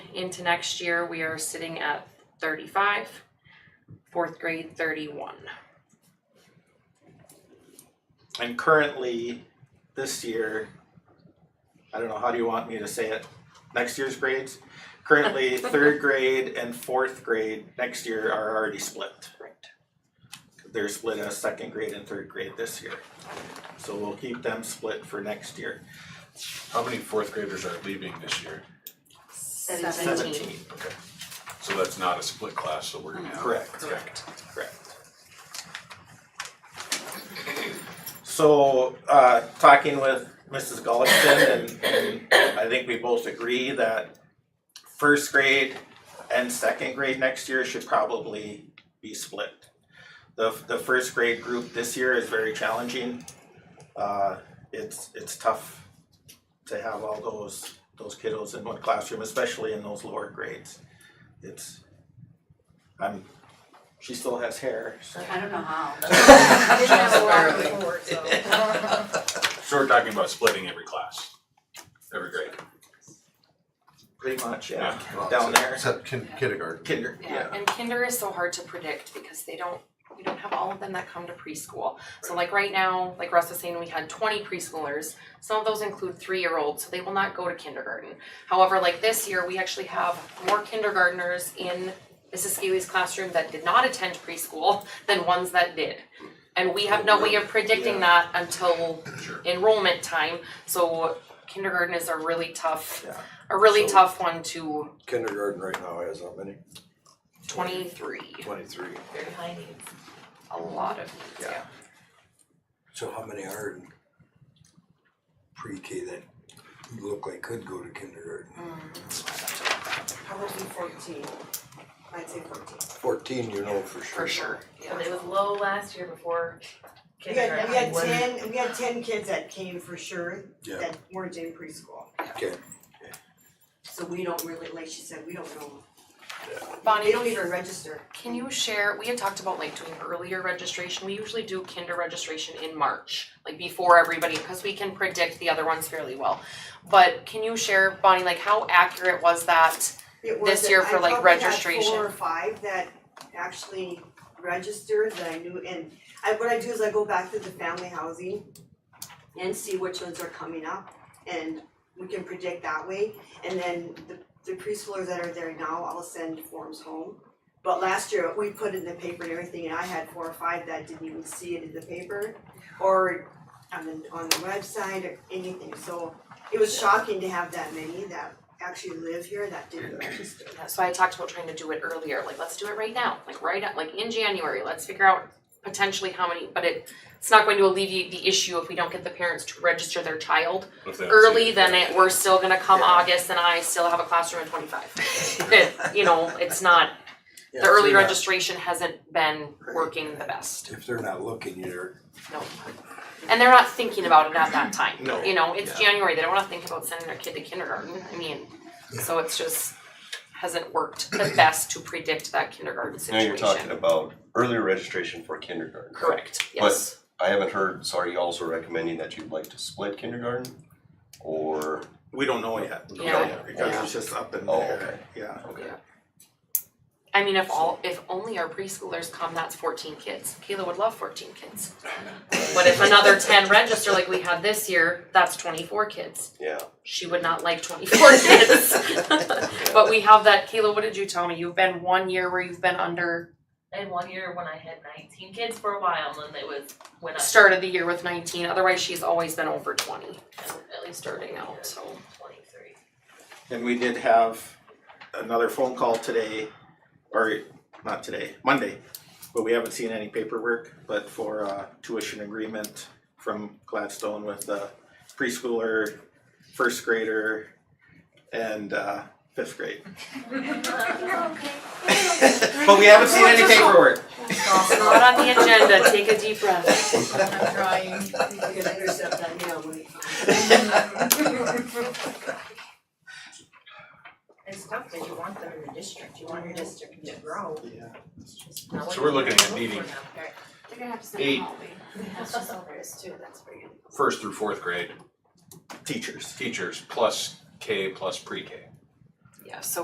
Into next year, we are sitting at thirty-five, fourth grade thirty-one. And currently, this year, I don't know, how do you want me to say it? Next year's grades? Currently, third grade and fourth grade next year are already split. Right. They're split as second grade and third grade this year. So we'll keep them split for next year. How many fourth graders are leaving this year? Seventeen. Okay. So that's not a split class, so we're gonna have. Correct. Correct. Correct. So, uh, talking with Mrs. Gullikson and, and I think we both agree that first grade and second grade next year should probably be split. The, the first grade group this year is very challenging. Uh, it's, it's tough to have all those, those kiddos in one classroom, especially in those lower grades. It's, I'm, she still has hair, so. I don't know how. Didn't have a lot before, so. So we're talking about splitting every class, every grade. Pretty much, yeah. Well, Down there, Except kin- kindergarten. kinder, yeah. And kinder is so hard to predict because they don't, we don't have all of them that come to preschool. So like right now, like Russ was saying, we had twenty preschoolers. Some of those include three-year-olds, so they will not go to kindergarten. However, like this year, we actually have more kindergartners in Mrs. Scaly's classroom that did not attend preschool than ones that did. And we have no way of predicting that until Sure. enrollment time, so kindergarten is a really tough, Yeah. a really So- tough one to Kindergarten right now has how many? twenty-three. Twenty-three. A lot of needs, yeah. So how many are in pre-K that look like could go to kindergarten? How would it be fourteen? I'd say fourteen. Fourteen, you know for sure. For sure, yeah. It was low last year before We had, we had kindergarten. ten, we had ten kids that came for sure Yeah, that weren't in preschool. okay. So we don't really, like she said, we don't know. They Bonnie, don't even register. can you share, we had talked about like doing earlier registration, we usually do kinder registration in March, like before everybody, cause we can predict the other ones fairly well. But can you share, Bonnie, like how accurate was that? It This was- year for, like, I registration. probably had four or five that actually registered that I knew and I, what I do is I go back to the family housing and see which ones are coming up and we can predict that way. And then the, the preschoolers that are there now, I'll send forms home. But last year, we put in the paper and everything and I had four or five that didn't even see it in the paper or on the, on the website or anything. So it was shocking to have that many that actually live here that didn't register. So I talked about trying to do it earlier, like let's do it right now, like right, at- like in January, let's figure out potentially how many, but it, it's not going to alleviate the issue if we don't get the parents to register their child If they don't see early, then it, we're still gonna come August and I still have a classroom of twenty-five. It- you know, it's not, Yeah, the if early they're not- registration hasn't been working the best, If they're not looking, you're, no. And they're not thinking about it at that time, No. you know, it's January, they don't wanna think about sending their kid to kindergarten, I mean, so it's just, hasn't worked the best to predict that kindergarten Now situation. you're talking about earlier registration for kindergarten. Correct, But- yes, I haven't heard, so are you also recommending that you'd like to split kindergarten? Or, We don't know yet. Yeah. Yeah. Because it's just up in Oh, there, okay. yeah. okay. I mean, if all, if only our preschoolers come, that's fourteen kids, Kayla would love fourteen kids. But if another ten register like we had this year, that's twenty-four kids. Yeah, she would not like 24 kids. but we have that. Kayla, what did you tell me? You've been one year where you've been under, And one year when I had nineteen kids for a while, and then it was, went up started the year with 19. Otherwise, she's always been over 20 to at least starting out. So, twenty-three. And we did have another phone call today, or not today, Monday. But we haven't seen any paperwork, but for a tuition agreement from Gladstone with a preschooler, first grader, and uh, fifth grade. But we haven't seen any paperwork. not on the agenda. Take a deep breath. I'm trying. You can intercept that now when it comes. It's tough because you want them in your district, you want your district to grow. So we're looking at needing They're gonna have to Eight. send all the, that's just over us too, that's for you. first through fourth grade Teachers. teachers plus K plus pre-K. Yeah, so